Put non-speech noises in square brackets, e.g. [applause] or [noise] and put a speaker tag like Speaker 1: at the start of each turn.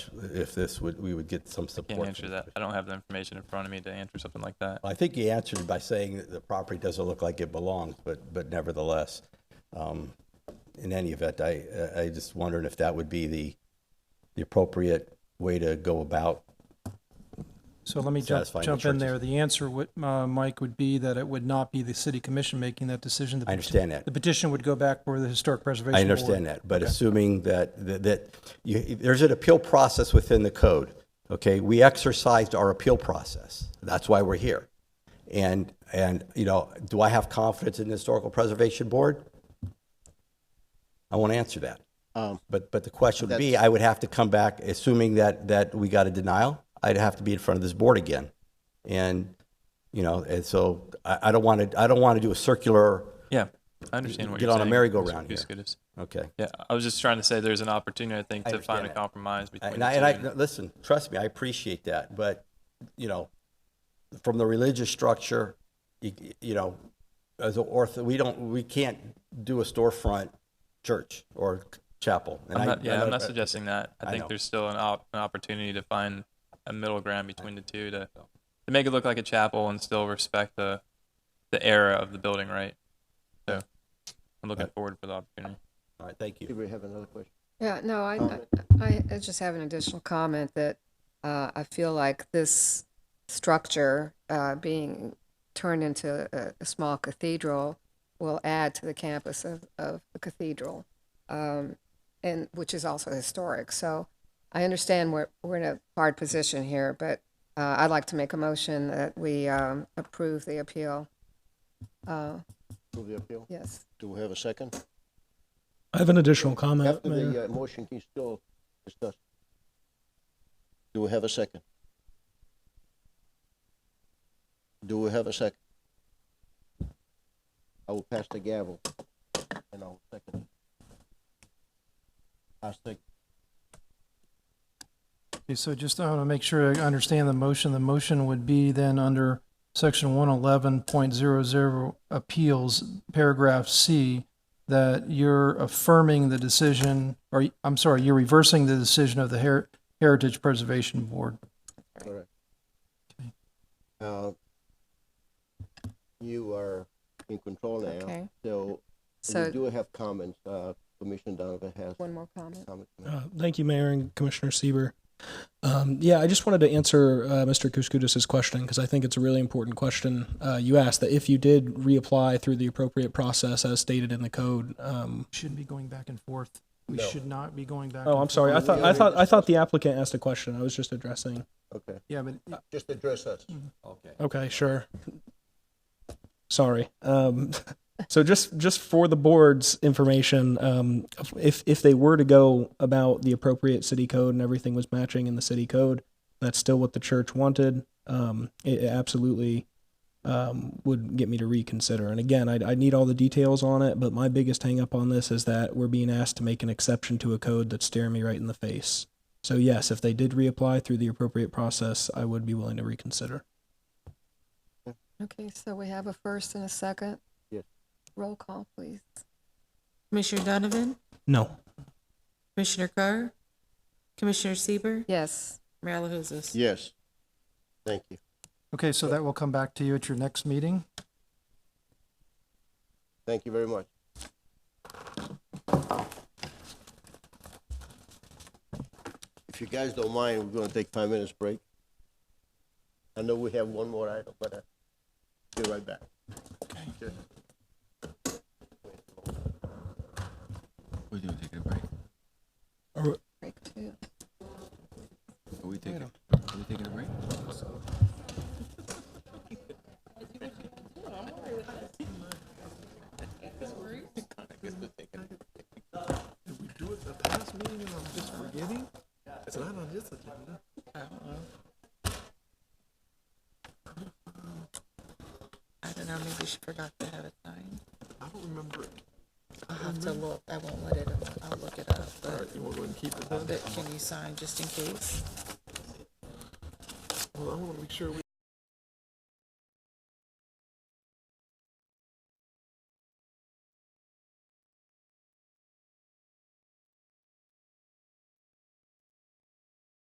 Speaker 1: if this would, we would get some support.
Speaker 2: Can't
Speaker 1: from
Speaker 2: answer
Speaker 1: the
Speaker 2: that. I don't have the information in front of me to answer something like that.
Speaker 1: I think he answered by saying that the property doesn't look like it belongs, but, but nevertheless, um, in any event, I, I just wondered if that would be the, the appropriate way to go about.
Speaker 3: So let me jump,
Speaker 1: satisfying the
Speaker 3: jump in
Speaker 1: churches.
Speaker 3: there. The answer, would- uh, Mike, would be that it would not be the city commission making that decision. The
Speaker 1: I understand that.
Speaker 3: peti- The petition would go back for the Historic Preservation
Speaker 1: I
Speaker 3: Board.
Speaker 1: understand that, but assuming that, that- that, you- there's an appeal process within the code, okay? We exercised our appeal process. That's why we're here. And, and, you know, do I have confidence in the Historical Preservation Board? I won't answer that. But, but the question would be, I would have to come back, assuming that, that we got a denial, I'd have to be in front of this board again. And, you know, and so I, I don't want to, I don't want to do a circular,
Speaker 2: Yeah, I understand what
Speaker 1: Get
Speaker 2: you're saying.
Speaker 1: on a merry-go-round
Speaker 2: Mr.
Speaker 1: here.
Speaker 2: Kuskatis.
Speaker 1: okay?
Speaker 2: Yeah, I was just trying to say there's an opportunity, I think, to
Speaker 1: understand
Speaker 2: find a
Speaker 1: that.
Speaker 2: compromise between
Speaker 1: And
Speaker 2: the
Speaker 1: I,
Speaker 2: two.
Speaker 1: and I
Speaker 2: and-
Speaker 1: no, listen, trust me, I appreciate that. But you know, from the religious structure, you, you know, as an ortho, we don't, we can't do a storefront church or chapel. And
Speaker 2: I'm not,
Speaker 1: I-
Speaker 2: yeah,
Speaker 1: I
Speaker 2: I'm
Speaker 1: know-
Speaker 2: not suggesting that. I
Speaker 1: I
Speaker 2: think
Speaker 1: know.
Speaker 2: there's still an, op- an opportunity to find a middle ground between the two to, to make it look like a chapel and still respect the, the era of the building, right? So I'm looking forward for the opportunity.
Speaker 1: All right, thank you.
Speaker 4: Did we have another question?
Speaker 5: Yeah, no, I, I, I just have an additional comment that, uh, I feel like this structure, uh, being turned into a, a small cathedral will add to the campus of, of the cathedral, um, and, which is also historic. So I understand we're, we're in a hard position here, but, uh, I'd like to make a motion that we, um, approve the appeal. Uh,
Speaker 4: Move the appeal?
Speaker 5: yes.
Speaker 4: Do we have a second?
Speaker 6: I have an additional comment,
Speaker 4: After
Speaker 6: Mayor.
Speaker 4: the uh, motion, can you still discuss? Do we have a second? Do we have a second? I will pass the gavel and I'll second. I second.
Speaker 3: Okay, so just, I want to make sure I understand the motion. The motion would be then under section one eleven point zero zero appeals, paragraph C, that you're affirming the decision, or I'm sorry, you're reversing the decision of the Her- Heritage Preservation Board.
Speaker 4: Correct. Uh, You are in control now,
Speaker 5: Okay.
Speaker 4: so we
Speaker 5: So
Speaker 4: do have comments. Uh, Commissioner Donovan has
Speaker 5: one more comment.
Speaker 4: comments.
Speaker 6: Uh, thank you, Mayor and Commissioner Sieber. Um, yeah, I just wanted to answer uh, Mr. Kuskudis's question because I think it's a really important question. Uh, you asked that if you did reapply through the appropriate process as stated in the code. Um,
Speaker 3: Shouldn't be going back and forth. We should not be going back.
Speaker 6: oh,
Speaker 3: and
Speaker 6: I'm sorry. I
Speaker 3: forth.
Speaker 6: thought I thought I thought the applicant asked a question. I was just addressing.
Speaker 4: Okay,
Speaker 3: Yeah, but
Speaker 4: just address us.
Speaker 1: Okay.
Speaker 6: Okay, sure. Sorry. Um, [laughs] so just just for the board's information, um, if if they were to go about the appropriate city code and everything was matching in the city code, that's still what the church wanted. Um, it, it absolutely um, would get me to reconsider. And again, I I need all the details on it, but my biggest hang up on this is that we're being asked to make an exception to a code that's staring me right in the face. So yes, if they did reapply through the appropriate process, I would be willing to reconsider.
Speaker 5: Okay, so we have a first and a second.
Speaker 4: Yes.
Speaker 5: Roll call, please.
Speaker 7: Commissioner Donovan,
Speaker 6: No.
Speaker 7: Commissioner Carr, Commissioner Sieber,
Speaker 5: Yes.
Speaker 7: Mayor LaHousas.
Speaker 4: Yes. Thank you.
Speaker 3: Okay, so that will come back to you at your next meeting.
Speaker 4: Thank you very much. If you guys don't mind, we're gonna take five minutes break. I know we have one more item, but I'll be right back. Okay.
Speaker 8: We do take a break.
Speaker 5: Break two.
Speaker 8: Are we taking, are we taking a break?
Speaker 7: I don't know, maybe she forgot to have it signed. I don't remember. I'll have to look, I won't let it, I'll look it up, but. you want to keep it But can you sign just in case?